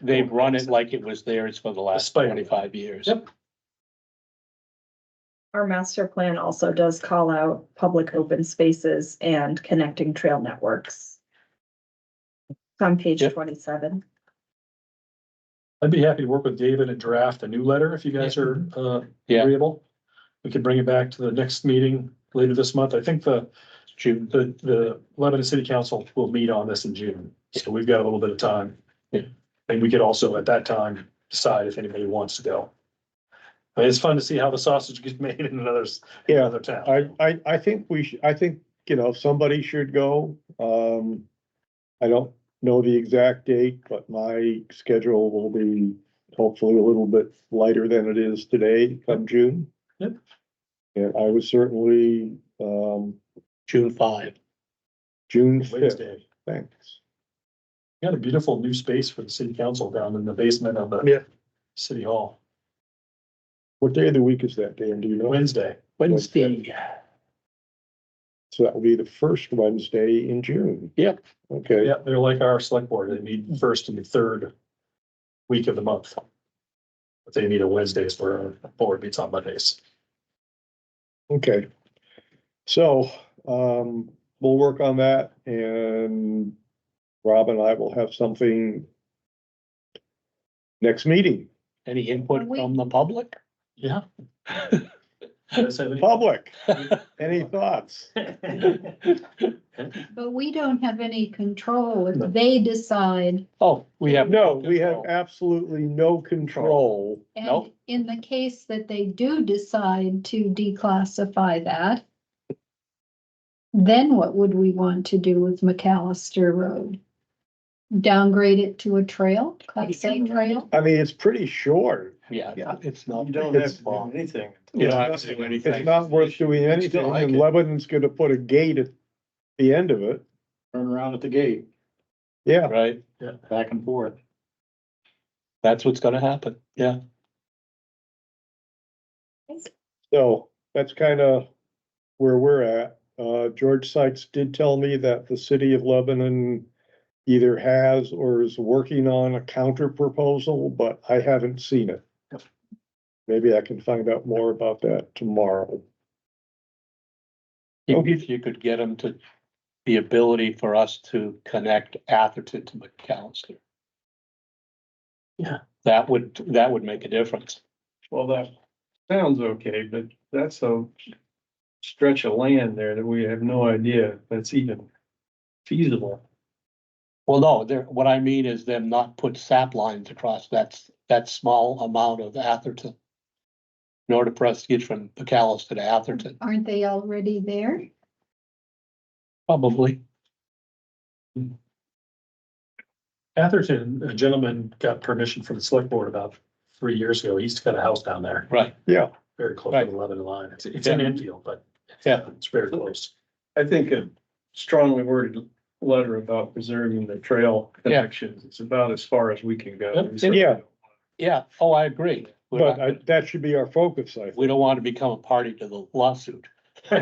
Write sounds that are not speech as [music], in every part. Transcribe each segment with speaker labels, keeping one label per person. Speaker 1: They've run it like it was theirs for the last
Speaker 2: spider.
Speaker 1: twenty-five years.
Speaker 2: Yep.
Speaker 3: Our master plan also does call out public open spaces and connecting trail networks. It's On page
Speaker 1: Yep.
Speaker 3: twenty-seven.
Speaker 2: I'd be happy to work with David and draft a new letter if you guys are uh
Speaker 1: Yeah.
Speaker 2: agreeable. We could bring it back to the next meeting later this month. I think the
Speaker 1: June,
Speaker 2: the the Lebanon City Council will meet on this in June, so we've got a little bit of time.
Speaker 1: Yeah.
Speaker 2: And we could also at that time decide if anybody wants to go. I mean, It's fun to see how the sausage gets [laughs] made in another, in
Speaker 4: Yeah,
Speaker 2: another town.
Speaker 4: I, I, I think we should, I think, you know, somebody should go. Um, I don't know the exact date, but my schedule will be hopefully a little bit lighter than it is today come June.
Speaker 2: Yep.
Speaker 4: And I was certainly, um,
Speaker 1: June five.
Speaker 4: June fifth,
Speaker 2: Wednesday.
Speaker 4: thanks.
Speaker 2: We Got a beautiful new space for the city council down in the basement of the
Speaker 4: Yeah.
Speaker 2: city hall,
Speaker 4: What day of the week is that, Dan? Do you know?
Speaker 2: Wednesday.
Speaker 1: Wednesday.
Speaker 4: So that will be the first Wednesday in June.
Speaker 1: Yep.
Speaker 4: Okay,
Speaker 2: Yeah, they're like our select board. They meet first and third week of the month. But they meet on Wednesdays where our board meets on Mondays.
Speaker 4: okay. So, um, we'll work on that and Rob and I will have something next meeting,
Speaker 1: Any
Speaker 3: Are
Speaker 1: input
Speaker 3: we-
Speaker 1: from the public?
Speaker 2: Yeah. Does that have
Speaker 5: [laughs]
Speaker 4: public. Any thoughts?
Speaker 2: any-
Speaker 6: But we don't have any control
Speaker 2: No.
Speaker 6: Oh, if they decide.
Speaker 1: Oh, we have. Oh,
Speaker 4: No, we have
Speaker 1: control.
Speaker 4: absolutely no control.
Speaker 6: And
Speaker 1: Nope.
Speaker 6: in the case that they do decide to declassify that, then what would we want to do with McAllister Road? Downgrade it to a trail, class A trail?
Speaker 4: I mean, it's pretty short.
Speaker 1: Yeah,
Speaker 4: Yeah.
Speaker 1: it's not.
Speaker 5: You don't have
Speaker 1: it's
Speaker 5: to
Speaker 1: long.
Speaker 5: do anything.
Speaker 1: You don't have to do anything.
Speaker 4: It's not worth doing anything
Speaker 5: like
Speaker 4: and
Speaker 5: it.
Speaker 4: Lebanon's gonna put a gate at the end of it.
Speaker 5: Turn around at the gate,
Speaker 4: Yeah,
Speaker 1: Right,
Speaker 5: back and forth.
Speaker 1: that's what's gonna happen, yeah.
Speaker 4: so that's kind of where we're at. Uh, George Sykes did tell me that the city of Lebanon either has or is working on a counter proposal, but I haven't seen it. Maybe I can find out more about that tomorrow.
Speaker 1: If
Speaker 4: Okay.
Speaker 1: if you could get them to, the ability for us to connect Atherton to McAllister.
Speaker 2: Yeah.
Speaker 1: That would, that would make a difference.
Speaker 5: Well, that sounds okay, but that's a stretch of land there that we have no idea that's even feasible.
Speaker 1: Well, no, there, what I mean is them not put sap lines across that, s- that small amount of Atherton. In order for us to get from McAllister to Atherton,
Speaker 6: Aren't they already there?
Speaker 1: probably.
Speaker 2: Atherton, a gentleman got permission from the select board about three years ago. He's got a house down there,
Speaker 1: Right,
Speaker 4: Yeah,
Speaker 2: very close to the Lebanon line. It's, it's in Enfield, but
Speaker 1: yeah,
Speaker 2: it's very close.
Speaker 5: I think a strongly worded letter about preserving the trail connections, it's about as far as we can go.
Speaker 1: Yep.
Speaker 4: yeah,
Speaker 1: yeah, oh, I agree. We're
Speaker 4: but
Speaker 1: not-
Speaker 4: I- that should be our focus, I think.
Speaker 1: We don't want to become a party to the lawsuit.
Speaker 5: [laughs]
Speaker 4: [laughs]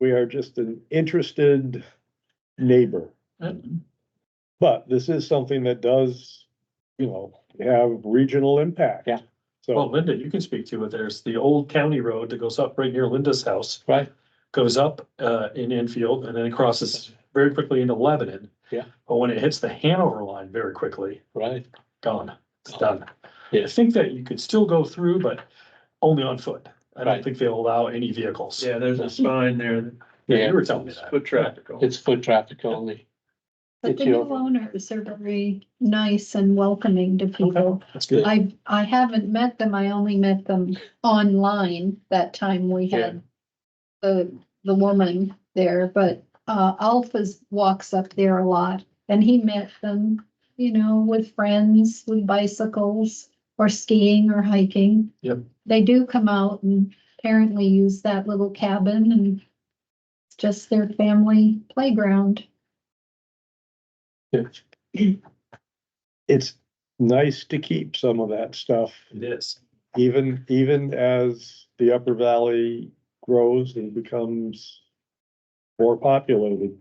Speaker 4: We are just an interested neighbor. But this is something that does, you know, have regional impact.
Speaker 1: Yeah.
Speaker 2: Well,
Speaker 4: So,
Speaker 2: Linda, you can speak to it. There's the old county road that goes up right near Linda's house.
Speaker 1: Right.
Speaker 2: Goes up uh in Enfield and then it crosses very quickly into Lebanon.
Speaker 1: Yeah.
Speaker 2: But when it hits the Hanover line very quickly,
Speaker 1: Right,
Speaker 2: gone, it's done. I
Speaker 1: yes,
Speaker 2: think that you could still go through, but only on foot. I don't
Speaker 1: Right.
Speaker 2: think they'll allow any vehicles.
Speaker 5: Yeah, there's a sign there that
Speaker 2: Yeah,
Speaker 1: Yeah.
Speaker 2: you were telling me that.
Speaker 5: Foot traffic. only.
Speaker 1: it's foot traffic only.
Speaker 6: But
Speaker 1: It's
Speaker 6: the new
Speaker 1: your-
Speaker 6: owners are very nice and welcoming to people.
Speaker 2: That's good.
Speaker 6: I, I haven't met them, I only met them online that time we had the, the woman there, but, uh, Alphas walks up there a lot, and he met them, you know, with friends, with bicycles, or skiing or hiking.
Speaker 2: Yep.
Speaker 6: They do come out and apparently use that little cabin and it's just their family playground.
Speaker 2: It
Speaker 4: it's nice to keep some of that stuff,
Speaker 2: is.
Speaker 4: even, even as the Upper Valley grows and becomes more populated.